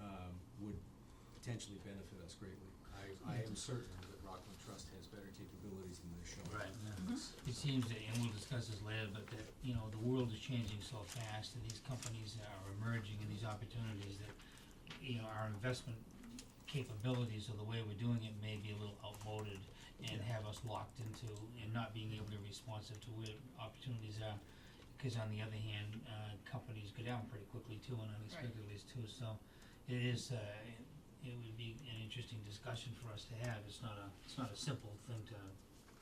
um, potentially benefit us greatly. I, I am certain that Rockland Trust has better capabilities than they're showing. Right, Mm-hmm. it seems that, and we'll discuss this later, but that, you know, the world is changing so fast and these companies are emerging and these opportunities that, you know, our investment capabilities or the way we're doing it may be a little outmoded and have us locked into and not being able to be responsive to where opportunities are. Cause on the other hand, uh, companies go down pretty quickly too and unexpectedly too, so it is, uh, it would be an interesting discussion for us to have. It's not a, it's not a simple thing to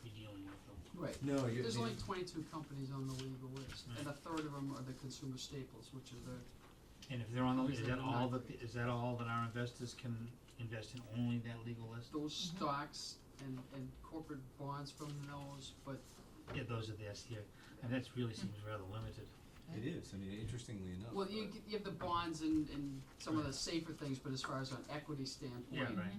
be dealing with them. Right. No, you, There's only the- twenty-two companies on the legal list, and a Right. third of them are the consumer staples, which are the, And if they're on the, is Obviously, that they're all that, not is that all that our investors can invest in, only that legal list? those stocks and, and corporate bonds from those, but Yeah, those are the SDA, and that's really seems rather limited. it is, I mean, interestingly enough. Well, you, g- you have the bonds and, and some of the safer things, but as far as an equity standpoint, Right,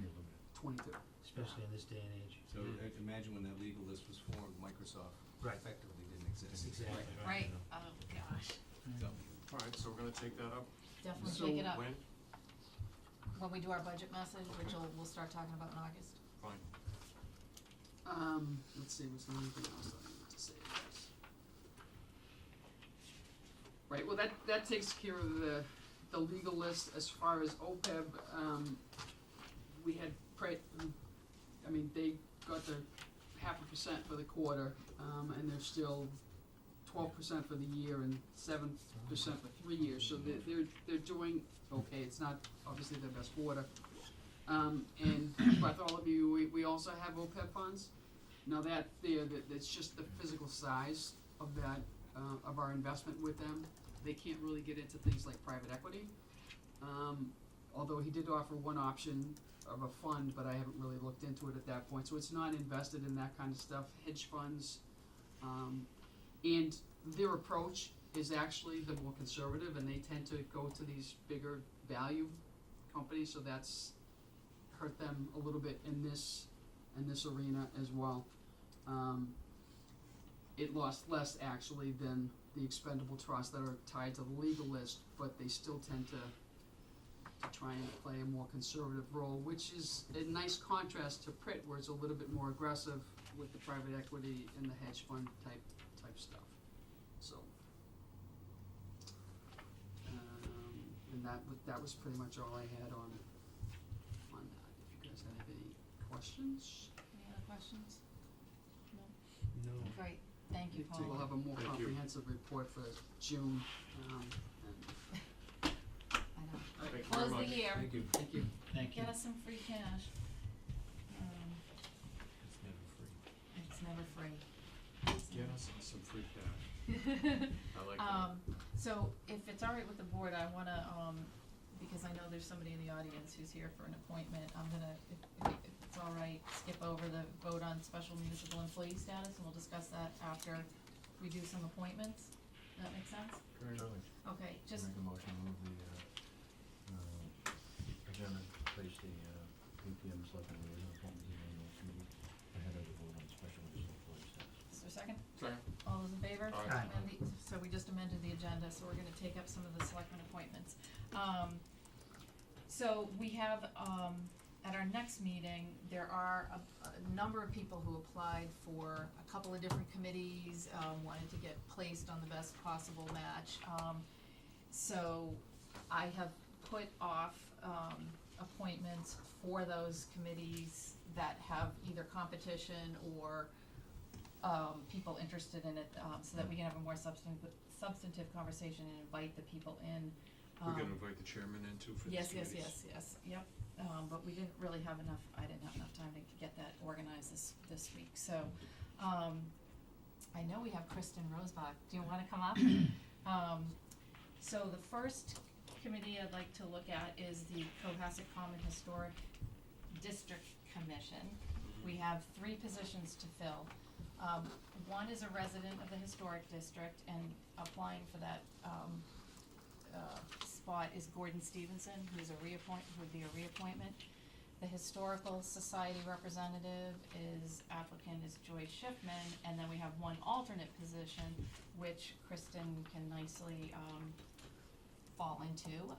twenty-two. especially in this day and age. So i- imagine when that legal list was formed, Microsoft Hmm. Right. effectively didn't exist. Exactly, right. Right, oh gosh, Mm. So, Alright, so we're gonna take that up So definitely take it up. when? When we do our budget message, which we'll, we'll start talking about in August. Fine. Um, let's see, was there anything else I need to say? about this? Right, well, that, that takes care of the, the legal list as far as OPEB, um, we had pre, I mean, they got the half a percent for the quarter, um, and they're still twelve percent for the year and seven percent for three years, so they're, they're, they're doing, okay, it's not obviously their best quarter. Um, and Bartholomew, we, we also have OPEB funds. Now that there, that, that's just the physical size of that, uh, of our investment with them. They can't really get into things like private equity. Um, although he did offer one option of a fund, but I haven't really looked into it at that point, so it's not invested in that kind of stuff, hedge funds. Um, and their approach is actually the more conservative, and they tend to go to these bigger value companies, so that's hurt them a little bit in this, in this arena as well. Um, it lost less actually than the expendable trusts that are tied to the legal list, but they still tend to, to try and play a more conservative role, which is a nice contrast to Pritt, where it's a little bit more aggressive with the private equity and the hedge fund type, type stuff, so. Um, and that, wa- that was pretty much all I had on, on that, if you guys have any questions, Any other questions? no, Great, thank you, we'll Paul. have a more Thank you. comprehensive report for June, um, and, I know. Thank you very Close much. the year, thank you. thank you. Thank you. get us some free cash. Um, It's never free. it's never free. Get us some free cash, I like that. Um, so if it's all right with the board, I wanna, um, because I know there's somebody in the audience who's here for an appointment, I'm gonna, if, if if it's all right, skip over the vote on special municipal employee status, and we'll discuss that after we do some appointments. Does that make sense? Very nice. Okay, just, Make a motion to move the, uh, uh, adjournment, place the, uh, APM selectmen liaison appointment to the annual committee ahead of the vote on special municipal employee status. is there a second? Second. All those in favor? Aye. Aye. And the, so we just amended the agenda, so we're gonna take up some of the selectmen appointments. Um, so we have, um, at our next meeting, there are a, a number of people who applied for a couple of different committees, um, wanted to get placed on the best possible match. Um, so I have put off, um, appointments for those committees that have either competition or, um, people interested in it, um, so that we can have a more substantive, substantive conversation and invite the people in. We're gonna Um, invite the chairman in too for these Yes, yes, committees. yes, yes, yep, um, but we didn't really have enough, I didn't have enough time to get that organized this, this week, so, um, I know we have Kristen Rosebach, do you wanna come up? Um, so the first committee I'd like to look at is the Cohasset Common Historic District Commission. Mm-hmm. We have three positions to fill. Um, one is a resident of the historic district and applying for that, um, uh, spot is Gordon Stevenson, who's a reappoint, would be a reappointment. The Historical Society representative is applicant is Joy Schiffman, and then we have one alternate position, which Kristen can nicely, um, fall into.